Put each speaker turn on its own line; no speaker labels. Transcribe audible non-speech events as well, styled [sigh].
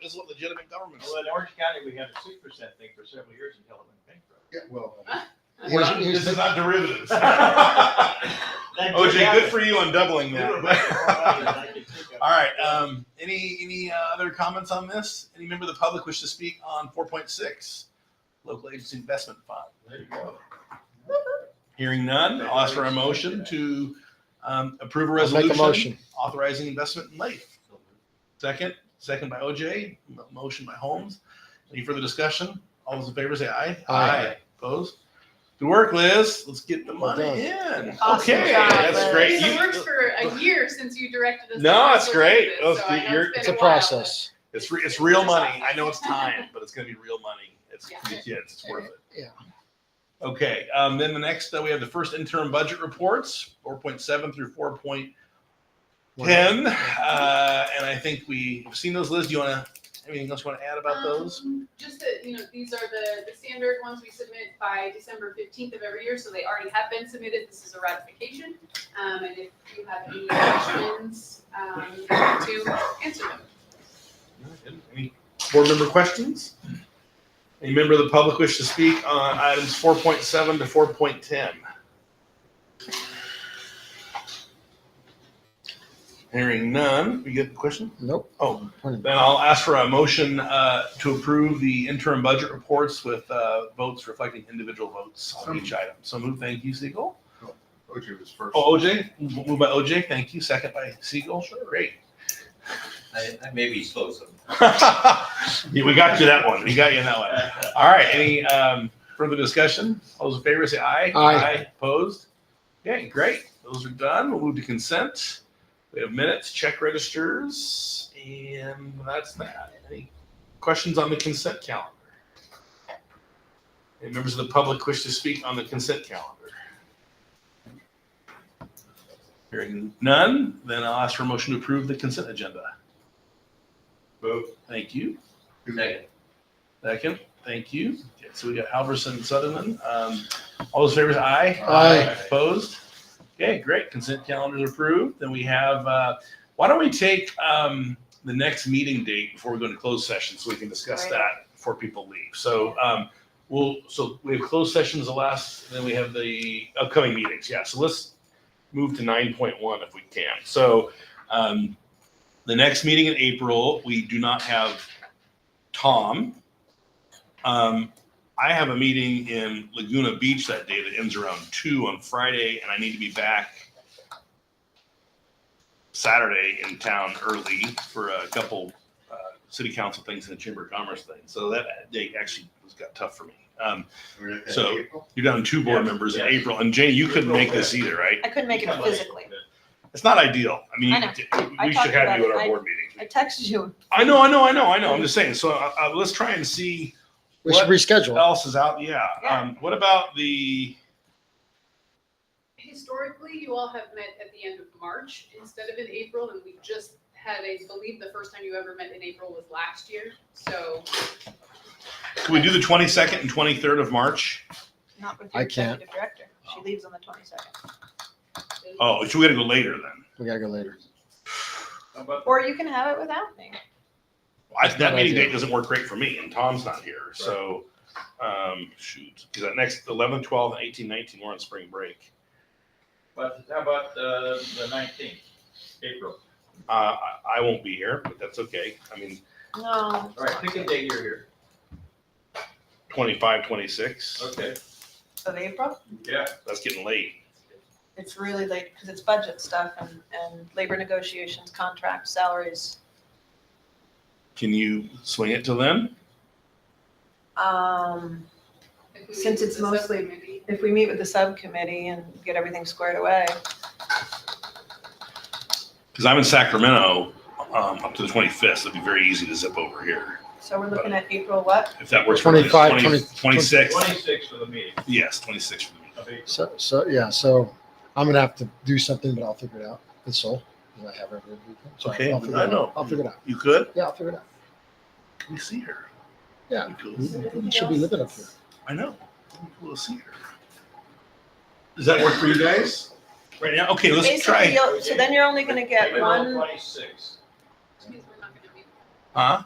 This is what legitimate government is.
Well, in Orange County, we had a six percent thing for several years until it went bankrupt.
Yeah, well.
[laughs]
We're
here's-
not-
here's
This
the-
is not [laughs] derivatives.
That did
OJ,
happen.
good for you on doubling
We were
that.
bankrupt for a while, and I could think
[laughs]
of-
All right. Um, any any uh, other comments on this? Any member of the public wish to speak on 4.6, local agency investment fund?
There you go.
Hearing none, I'll ask for a motion to um, approve a
I'll Make
resolution
a motion.
authorizing investment in Leaf. Second, second by OJ, mo- motion by Holmes. Any further discussion? All those in favor say aye.
Aye.
Opposed? Good work, Liz. Let's get the
Well
money
done.
in.
Awesome
okay,
job,
that's
Liz.
great.
It
You-
works for a year since you directed us. to
No,
work
it's
with
great.
this,
Let's
so
do-
I know
you're-
been
It's a
while, but-
process.
It's re- it's real money. I know it's time, but it's gonna be real money. It's
Yeah.
for the kids. It's worth it.
Yeah.
Okay. Um, then the next uh, we have the first interim budget reports, four point seven through four point ten, uh, and I think we've seen those. Liz, do you want to anything else you want to add about those?
Um, Just that, you know, these are the, the standard ones we submit by December fifteenth of every year, so they already have been submitted. This is a ratification. Um, and if you have any questions, um, you have to answer them.
Any board member questions? Any member of the public wish to speak on items four point seven to four point ten? Hearing none, we get the question?
Nope.
Oh. Then I'll ask for a motion uh, to approve the interim budget reports with uh, votes reflecting individual votes on each item. So move, thank you, Siegel.
OJ was first.
Oh, OJ, move by OJ, thank you, second by Siegel, sure, great.
I, I maybe slow some.
[laughs] Yeah, We got you that one, we got you that one. All right, any um, further discussion? All those in favor say aye.
Aye.
Opposed? Okay, great, those are done, we'll move to consent. We have minutes, check registers, and that's that. Any questions on the consent calendar? Any members of the public wish to speak on the consent calendar? Hearing none, then I'll ask for a motion to approve the consent agenda.
Move.
Thank you.
Second.
Second, thank you. Okay, So we got Halverson and Sutherland. Um, all those favors, aye.
Aye.
Opposed? Okay, great. Consent calendar's approved. Then we have, uh, why don't we take, um, the next meeting date before we go into closed session so we can discuss
Right.
that before people leave. So, um, we'll, so we have closed sessions the last, then we have the upcoming meetings. Yeah, so let's move to nine point one if we can. So, um, the next meeting in April, we do not have Tom. Um, I have a meeting in Laguna Beach that day that ends around two on Friday, and I need to be back Saturday in town early for a couple uh, city council things and a chamber of commerce thing. So that day actually was got tough for me. Um, So- you're down two board
Yeah,
members in
yeah.
April, and Jane, you couldn't make this either, right?
I couldn't make it physically.
It's not ideal. I mean,
I know. I
we
talked
should have
about
you at
it.
our
I-
board meeting.
I texted you.
I know, I know, I know, I know. I'm just saying. So uh, uh, let's try and see.
We should
What Oh.
reschedule.
else is out? Yeah.
Yeah.
Um, what about the?
Historically, you all have met at the end of March instead of in April, and we just had, I believe, the first time you ever met in April was last year, so.
Can we do the twenty second and twenty third of March?
Not with
I
your
can't.
executive director. She leaves on the twenty-second.
Oh, so we got to go later then.
We gotta go later.
How about
Or you can have it without me.
I, that
Good
meeting
idea.
date doesn't work great for me, and Tom's not here, so um, shoot. Because that next 11, 12, and 18, 19, we're on spring break.
But how about uh, the nineteenth, April?
Uh, I, I won't be here, but that's okay. I mean,
No.
All right, pick a day you're here.
25, 26.
Okay,
Of April?
yeah.
That's getting late.
It's really late because it's budget stuff and, and labor negotiations, contracts, salaries.
Can you swing it till then?
Um,
If we
Since
leave
it's
the
mostly-
subcommittee.
if we meet with the subcommittee and get everything squared away,
Because I'm in Sacramento um, up to the 25th. So it'd be very easy to zip over here
so we're looking at April what?
if that works. for everybody.
25, 20
26.
Twenty-sixth for the meeting
Yes, 26 for me.
of April.
So, so, yeah, so I'm gonna have to do something, but I'll figure it out. It's so, I have every weekend. So
Okay,
I'll figure it
I
out.
know.
I'll figure it out.
You could?
Yeah, I'll figure it out.
Can we see her?
Yeah.
We could.
We Mm-hmm. should be living up here.
I know. We'll see her. Does that work for you guys? Right now? Okay, let's
Basically,
try.
you'll- So then you're only gonna get
April
one,
Twenty-sixth.
Which means we're not gonna meet.
Huh?